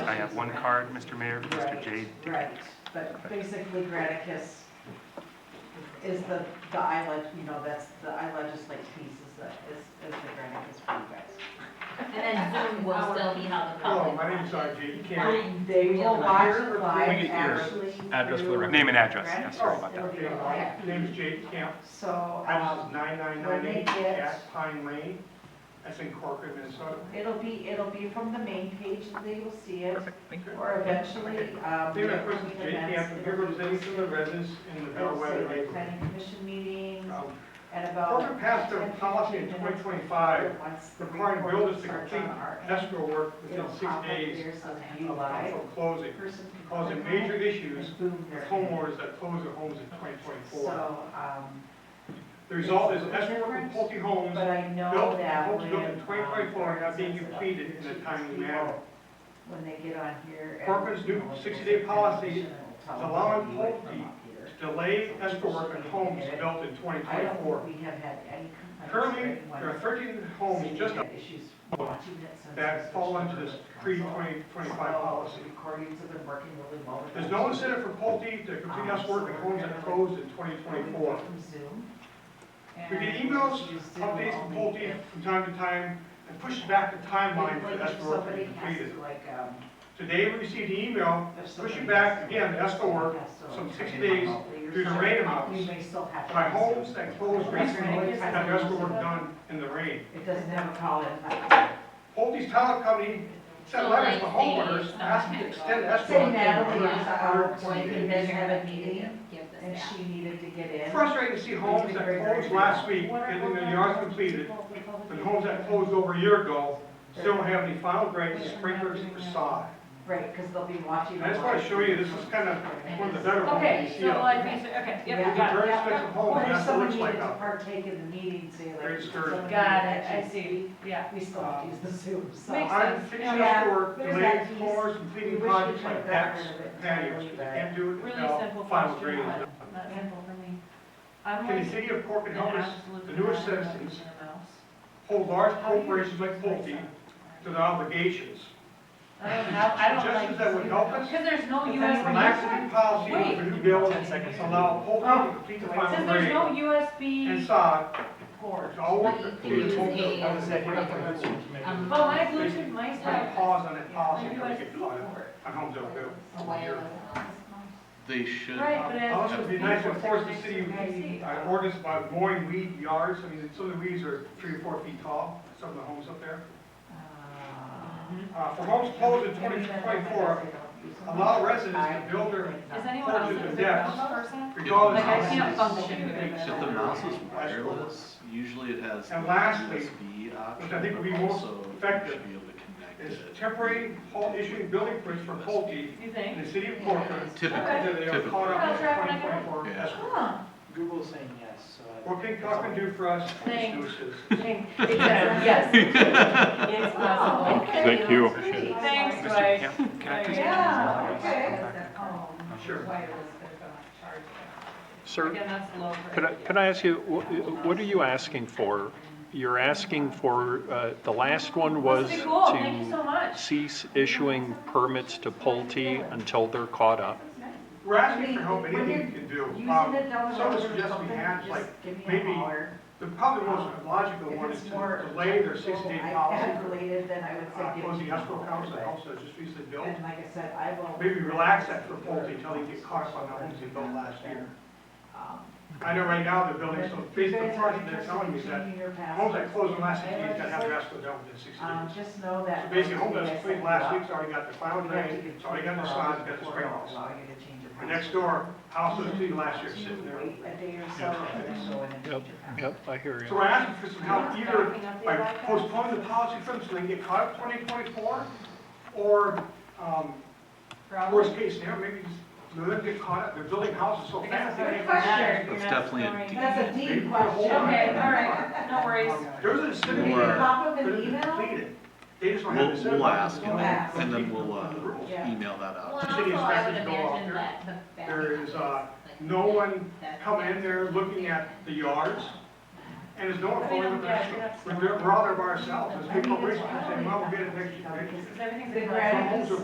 I have one card, Mr. Mayor, for Mr. Right, J. Right, but basically Granicus is the, the I leg, you know, that's, the I legislate piece is the, is, is the Granicus for you guys. And then Zoom will still be held the Hello, public. my name's RJ Carey. Fine. They will watch Here, it we live get actually. Address for the through record. Name and address, yes, sorry about that. It'll be Okay, live. my name's Jake Camp. Oh, So, Address is um, 9998 when they get- Jack Pine Lane. That's in Corcoran, Minnesota. it'll be, it'll be from the main page, and they will see it, Perfect, thank you. or eventually, um. They there will represent be Jake Camp, events, it'll here be representing posted. the residents in the It'll say Bellwether like neighborhood. planning commission meetings Um, and about. Corcoran passed a policy in 2025 requiring builders to complete escrow work within six days of Oh, July, council closing, person can causing click on major it, issues and boom, with they're in. homeowners that close their homes in So, 2024. um, The result is escrow and pulte homes but I know Built, that homes when. built in 2024 are not being um, completed in a timely people, manner. When they get on here. and, Corcoran's new you know, 60-day they policy can tell is them allowing to do it from pulte up here. Delay escrow work on homes built in I don't 2024. think we have had any complaints. Currently, right, when there are 13 homes city just had issues watching it since that it's fall been into this council. pre-2025 policy. Recordings have been working really well. with us. There's no incentive for Pulte to complete us work on homes that closed in We've 2024. worked from Zoom. We get and emails, we use Zoom Updates from only Pulte if- from time to time and push back the like timeline for if escrow work to somebody be has completed. to, Like, um. Today, we received an email if Push it somebody back has to- again, that's the work, has to, like, some come 60 in days remotely or due to something, rain amounts. We may still have. to by use homes Zoom. that closed recently have escrow work done in the rain. It doesn't have a call in. Pulte's talent company sent letters to homeowners asking to extend escrow. Say work to Natalie is uh, 120 out, days. you guys have a meeting, Give this and back. she needed to get in. Frustrating to see homes that closed last week getting their yards completed, and homes that closed over a year ago still don't have any final grades, sprinklers, or sod. Right, because they'll be watching. I just want to show you, this is kind of one of the better ones Okay, you see. so out I think, so- okay, yep, Yeah. there. we These got are it, yep, expensive yep. homes, Or if that's what it somebody looks like needed to now. partake in the meeting, say like. Great skirt. someone Got needed it, I to- see, yeah. We still have to use the Zoom, so. Makes I'm fixing up work, Oh, Yeah, there's that delayed piece. floors, We completing wish we projects could've like gotten decks, rid of it and patios, totally back. can't do it Really until simple final question, grade is done. but not simple for me. I'm Can like the an city of Cork and help us absolute. the newest moron about citizens. their mouse. hold large corporations like Pulte to their obligations? I don't know, I don't like. Suggestions that would help us? Because there's no But US. that's Relaxing policy for new builds, Wait. Ten seconds. allow Pulte to complete the final Since there's grade. no And USB sod, port. all work. But you can to use Pulte. a- I would say, we're not gonna do it. Um, Well, my Bluetooth, my Put a stuff. pause on that Yeah, policy my until we get USB caught up port. on homes that built. A wireless mouse. They should, Right, but as. Also, it'd be nice to force the I city, see. I ordinance about mowing weed yards, I mean, some of the weeds are three or four feet tall, some of the homes up there. Uh, for homes closed in twenty twenty-four, allow residents to build their Is anyone else Fortune a and big depths. mouse person? regardless. Like, I of- can't function with it. if the mouse is wireless, usually it has the And lastly, USB option, which I think would be but most also you effective, should be able to connect Is it. temporary halt issuing building permits for Pulte You think? in the city of Corcoran, Typically, until they are caught up in twenty twenty-four Yeah. escrow. Huh. Google's saying yes, so. I- What can Corcoran do for us, Thanks. Mr. Exactly, yes. It's Oh, possible. Thank you. Thanks. Thanks, Mr. Dwight. Camp, can I just? Yeah, okay. Oh, Sure. Sir, Again, that's low. for- could I, could I ask you, wh- what are you asking for? You're asking for, uh, the last one was Must be cool. Thank you so to much. cease issuing permits to Pulte until they're caught up. We're asking for help, When anything you're you can do. Using Um, it down the Some road of or the suggestions we something, had, just like, give me a maybe holler. the probably most logical one is If to it's more. delay their sixty-day policy iPad related, then I would say. Uh, give closing me a escrow holler, accounts that but- helps us just recently built, And like I said, I will. maybe relax that for Pulte until they get caught up on the homes they built last year. Um, I know right now they're building some, based on you guys are project, they're telling me interested in that changing your password. homes that closed in the last six weeks gotta have their escrow done within sixty Um, days. just know So that. basically, home once you that's guys cleaned set last it week's already got the final up, you have to drain, get it's already got the two sod, hours it's got the before sprinklers. it'll Allow you to change your. The password. next door, house was cleaned last year, You sitting there. Wait a day or so and then go in and Yep, change your password. yep, I hear So you. we're asking for some help either Backing up the by iPad. postponing the policy for them so they can get caught up twenty twenty-four, or, um, Probably. worst case scenario, maybe just let them get caught up, they're building houses so I guess fast. it's a they good can't- question. That's You're not definitely a snoring. deep- That's a Maybe deep put a question. hold on it. Okay, all right, no worries. There's an incentive. Maybe Or- there pop them for an them to email. complete it. They just don't have uh, We'll, the incentive. we'll ask and Ask. then, and then we'll, uh, Yeah. email that out. Well, and also I would imagine that the. back There is, uh, office, like, No one that's- coming in there looking at the yards, and there's no one I mean, following the yeah, directions. that's- We're, we're out there by ourselves, there's people racing, saying, well, we'll get it next year. Because everything's. The in- granite Homes are